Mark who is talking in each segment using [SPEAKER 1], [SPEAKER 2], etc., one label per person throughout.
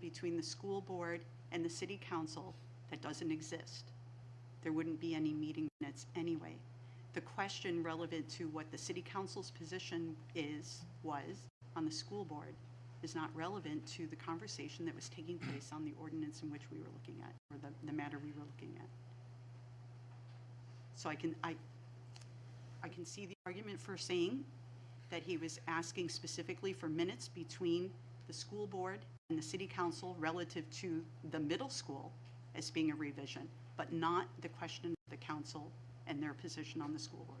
[SPEAKER 1] between the school board and the city council that doesn't exist. There wouldn't be any meeting minutes anyway. The question relevant to what the city council's position is, was, on the school board is not relevant to the conversation that was taking place on the ordinance in which we were looking at, or the, the matter we were looking at. So I can, I, I can see the argument for saying that he was asking specifically for minutes between the school board and the city council relative to the middle school as being a revision, but not the question of the council and their position on the school board.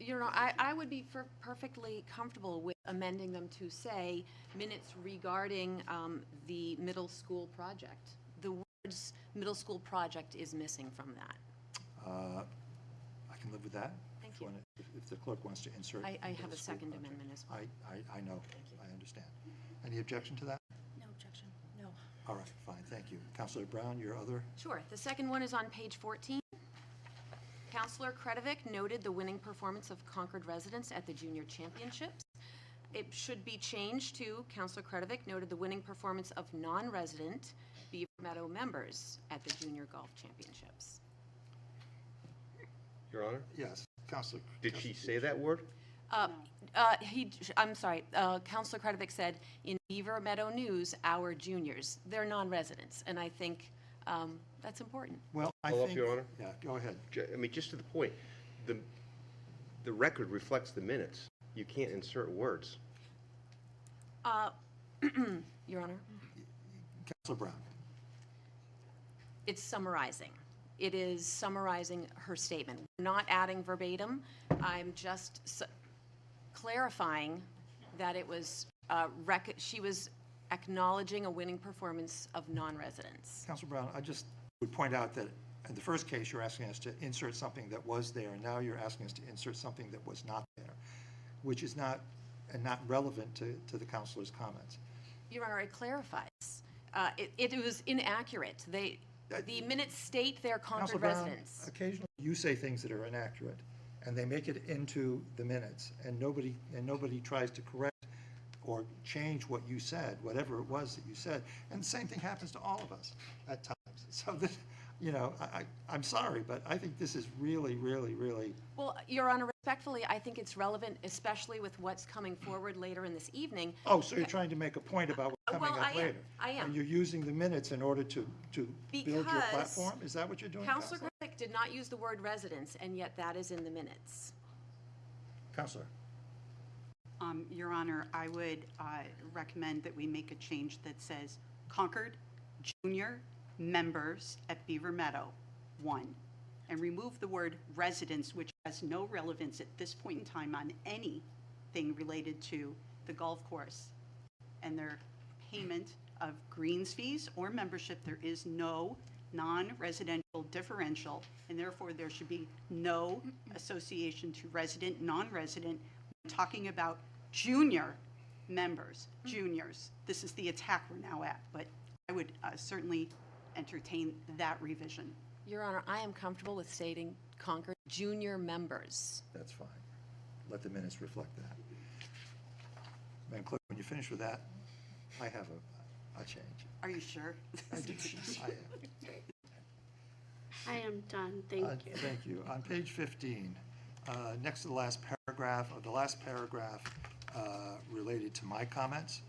[SPEAKER 2] You know, I, I would be fer- perfectly comfortable with amending them to say minutes regarding um, the middle school project. The words "middle school project" is missing from that.
[SPEAKER 3] Uh, I can live with that.
[SPEAKER 2] Thank
[SPEAKER 3] If
[SPEAKER 2] you.
[SPEAKER 3] wanna- if- If the clerk wants to insert.
[SPEAKER 2] I, I have
[SPEAKER 3] middle
[SPEAKER 2] a
[SPEAKER 3] school
[SPEAKER 2] second
[SPEAKER 3] project.
[SPEAKER 2] amendment as well.
[SPEAKER 3] I, I, I know, I understand. Any objection to that?
[SPEAKER 4] No objection, no.
[SPEAKER 3] All right, fine, thank you. Counselor Brown, your other,
[SPEAKER 2] Sure. The second one is on page 14. Counselor Kretovic noted the winning performance of Concord residents at the junior championships. It should be changed to Counselor Kretovic noted the winning performance of non-resident Beaver Meadow members at the junior golf championships.
[SPEAKER 5] Your Honor,
[SPEAKER 3] yes, Counselor.
[SPEAKER 5] did she say that word?
[SPEAKER 2] Uh, uh, He, I'm sorry, uh, Counselor Kretovic said, in Beaver Meadow News, our juniors, they're non-residents, and I think um, that's important.
[SPEAKER 3] Well, I
[SPEAKER 5] Follow up,
[SPEAKER 3] think.
[SPEAKER 5] Your Honor?
[SPEAKER 3] Yeah, go ahead.
[SPEAKER 5] Ju- I mean, just to the point, the, the record reflects the minutes. You can't insert words.
[SPEAKER 2] Uh, Your Honor?
[SPEAKER 3] Counselor Brown,
[SPEAKER 2] It's summarizing. It is summarizing her statement, not adding verbatim. I'm just s- clarifying that it was, uh, rec- she was acknowledging a winning performance of non-residents.
[SPEAKER 3] Counselor Brown, I just would point out that in the first case, you're asking us to insert something that was there, and now you're asking us to insert something that was not there, which is not, and not relevant to, to the counselor's comments.
[SPEAKER 2] Your Honor, it clarifies. Uh, It it was inaccurate. They, the minutes state they're
[SPEAKER 3] Counselor
[SPEAKER 2] Concord
[SPEAKER 3] Uh, Brown,
[SPEAKER 2] residents.
[SPEAKER 3] Occasionally, you say things that are inaccurate, and they make it into the minutes, and nobody, and nobody tries to correct or change what you said, whatever it was that you said. And the same thing happens to all of us at times. So this, you know, I, I, I'm sorry, but I think this is really, really, really,
[SPEAKER 2] Well, Your Honor, respectfully, I think it's relevant, especially with what's coming forward later in this evening.
[SPEAKER 3] oh, so you're trying to make a point about what's coming
[SPEAKER 2] Well, I
[SPEAKER 3] up
[SPEAKER 2] am.
[SPEAKER 3] later?
[SPEAKER 2] I am.
[SPEAKER 3] And you're using the minutes in order to, to build your
[SPEAKER 2] Because
[SPEAKER 3] platform? Is that what you're doing,
[SPEAKER 2] Counselor
[SPEAKER 3] Counselor?
[SPEAKER 2] Krick did not use the word residence, and yet that is in the minutes.
[SPEAKER 3] Counselor,
[SPEAKER 1] Um, Your Honor, I would uh, recommend that we make a change that says Concord Junior Members at Beaver Meadow, one, and remove the word residents, which has no relevance at this point in time on anything related to the golf course and their payment of greens fees or membership. There is no non-residential differential, and therefore there should be no association to resident, non-resident. We're Talking about junior members, juniors. This is the attack we're now at, but I would uh, certainly entertain that revision.
[SPEAKER 2] Your Honor, I am comfortable with stating Concord junior members.
[SPEAKER 3] that's fine. Let the minutes reflect that. Madam Clerk, when you finish with that, I have a, a change.
[SPEAKER 1] Are you sure?
[SPEAKER 3] I do. I am.
[SPEAKER 4] I am
[SPEAKER 3] Uh,
[SPEAKER 4] done, thank you.
[SPEAKER 3] Thank you. On page 15, uh, next to the last paragraph, or the last paragraph uh, related to my comments,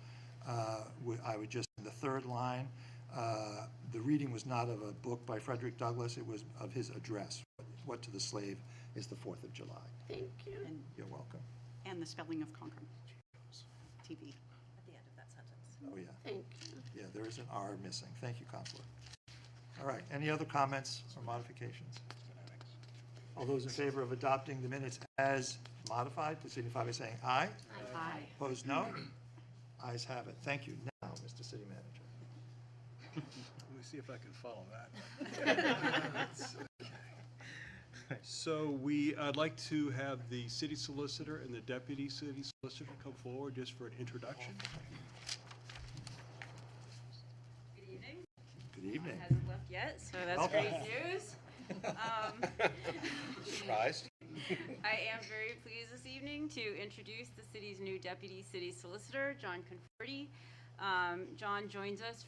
[SPEAKER 3] uh, would- I would just, the third line, uh, the reading was not of a book by Frederick Douglass, it was of his address, What to the Slave is the Fourth of July.
[SPEAKER 4] Thank you.
[SPEAKER 3] You're welcome.
[SPEAKER 1] And the spelling of Concord. TV.
[SPEAKER 3] Oh, yeah.
[SPEAKER 4] Thank you.
[SPEAKER 3] Yeah, there is an R missing. Thank you, Counselor. All right, any other comments or modifications? All those in favor of adopting the minutes as modified, please signify by saying aye.
[SPEAKER 2] Aye.
[SPEAKER 3] Opposed, no? Ayes have it. Thank you. Now, Mr. City Manager.
[SPEAKER 6] Let me see if I can follow that. So we, I'd like to have the city solicitor and the deputy city solicitor come forward just for an introduction.
[SPEAKER 3] Good evening.
[SPEAKER 7] hasn't left yet, so that's
[SPEAKER 3] Okay.
[SPEAKER 7] great news. Um,
[SPEAKER 5] Surprised?
[SPEAKER 7] I am very pleased this evening to introduce the city's new deputy city solicitor, John Conforti. Um, John joins us